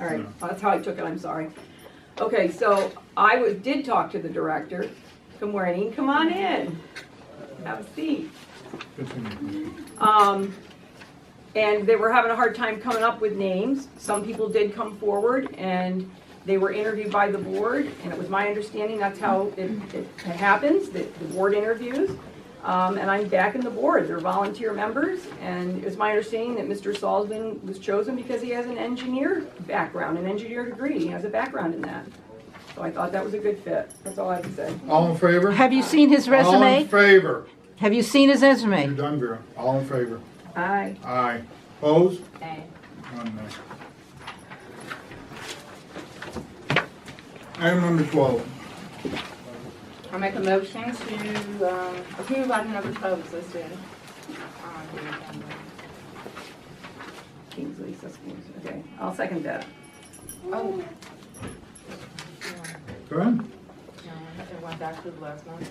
All right, that's how I took it, I'm sorry. Okay, so I was, did talk to the director. Good morning, come on in. Have a seat. Um, and they were having a hard time coming up with names. Some people did come forward and they were interviewed by the board. And it was my understanding that's how it, it happens, that the board interviews. Um, and I'm back in the board. They're volunteer members. And it's my understanding that Mr. Salzman was chosen because he has an engineer background, an engineer degree. He has a background in that. So I thought that was a good fit. That's all I have to say. All in favor? Have you seen his All in resume? favor? Have you seen his You're resume? done, Vera. All in favor? Aye. Aye. Opposed? Aye. One nay. Item number twelve. I make a motion to um, approve item number 12 is listed. on the agenda. Kingsley, Susquehanna. Okay, I'll second that. Oh, Go ahead. no, it went back to the last one.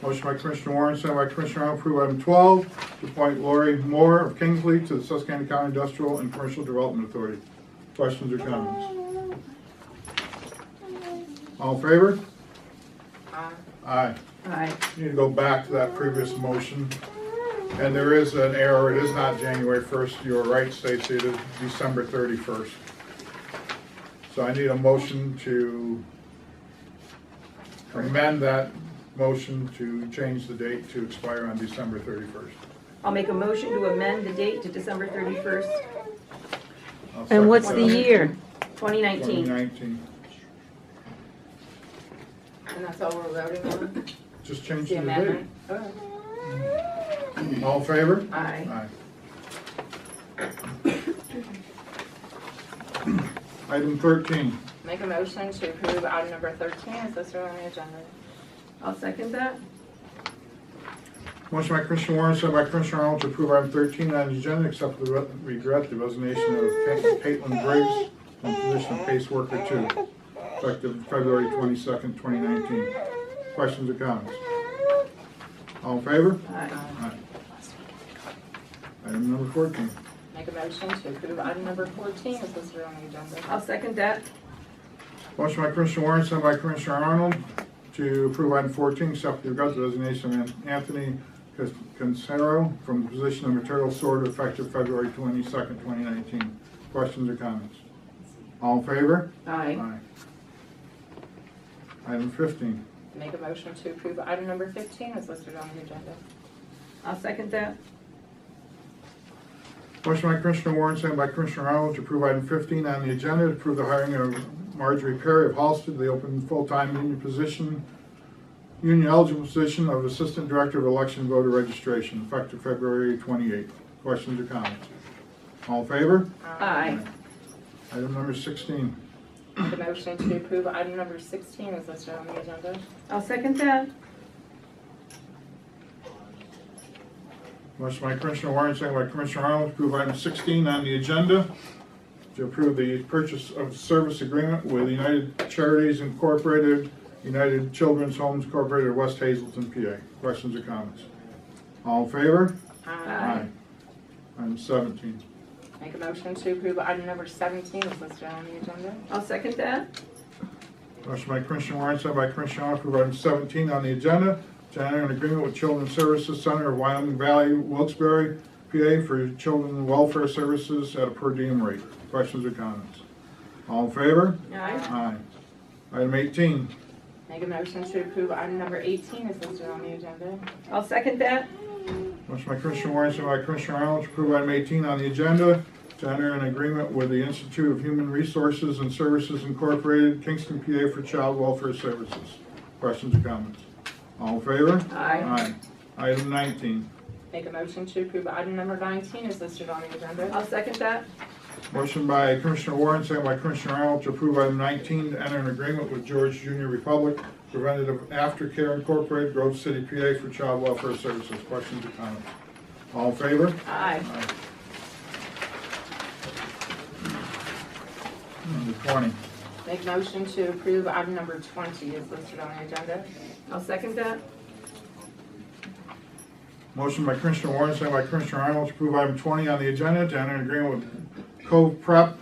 Motion by Commissioner Warren, sent by Commissioner Arnold, approve item twelve, to appoint Lori Moore of Kingsley to the Susquehanna County Industrial and Commercial Development Authority. Questions or comments? All in favor? Aye. Aye. Aye. You need to go back to that previous motion. And there is an error, it is not January 1st, you are right, Stacy, it is December 31st. So I need a motion to amend that motion to change the date to expire on December 31st. I'll make a motion to amend the date to December 31st, I'll And second what's the that. year? 2019. 2019. And that's all we're voting on? Just change The the amendment? date. Oh, All in favor? Aye. Aye. Item 13. Make a motion to approve item number 13 is listed on the agenda. I'll second that. Motion by Commissioner Warren, second by Commissioner Arnold to approve item 13 on the agenda, except for the re- regret the resignation of Ca- Caitlin Briggs from position of case worker two, effective February 22nd, 2019. Questions or comments? All in favor? Aye. Aye. Item number 14. Make a motion to approve item number 14 is listed on the agenda. I'll second that. Motion by Commissioner Warren, second by Commissioner Arnold to approve item 14, except for the regret the resignation of Anthony Cus- Cancero from the position of material sorter effective February 22nd, 2019. Questions or comments? All in favor? Aye. Item 15. Make a motion to approve item number 15 is listed on the agenda. I'll second that. Motion by Commissioner Warren, second by Commissioner Arnold to approve item 15 on the agenda, to approve the hiring of Marjorie Perry of Halsted, the open full-time union position, union eligible position of Assistant Director of Election Voter Registration, effective February 28th. Questions or comments? All in favor? Aye. Item number 16. Make a motion to approve item number 16 is listed on the agenda. I'll second that. Motion by Commissioner Warren, second by Commissioner Arnold, to approve item 16 on the agenda, to approve the purchase of service agreement with United Charities Incorporated, United Children's Homes Incorporated, of West Hazelton, PA. Questions or comments? All in favor? Aye. Aye. Item 17. Make a motion to approve item number 17 is listed on the agenda. I'll second that. Motion by Commissioner Warren, second by Commissioner Arnold, to approve item 17 on the agenda, to enter an agreement with Children's Services Center of Wyoming Valley, Wilkes-Barre, PA, for children welfare services at a per diem rate. Questions or comments? All in favor? Aye. Aye. Item 18. Make a motion to approve item number 18 is listed on the agenda. I'll second that. Motion by Commissioner Warren, second by Commissioner Arnold, to approve item 18 on the agenda, to enter an agreement with the Institute of Human Resources and Services Incorporated, Kingston, PA, for child welfare services. Questions or comments? All in favor? Aye. Item 19. Make a motion to approve item number 19 is listed on the agenda. I'll second that. Motion by Commissioner Warren, second by Commissioner Arnold, to approve item 19, to enter an agreement with George Junior Republic Preventative Aftercare Incorporated, Grove City, PA, for child welfare services. Questions or comments? All in favor? Aye. Number 20. Make a motion to approve item number 20 is listed on the agenda. I'll second that. Motion by Commissioner Warren, second by Commissioner Arnold to approve item 20 on the agenda to enter an agreement with Cove Prep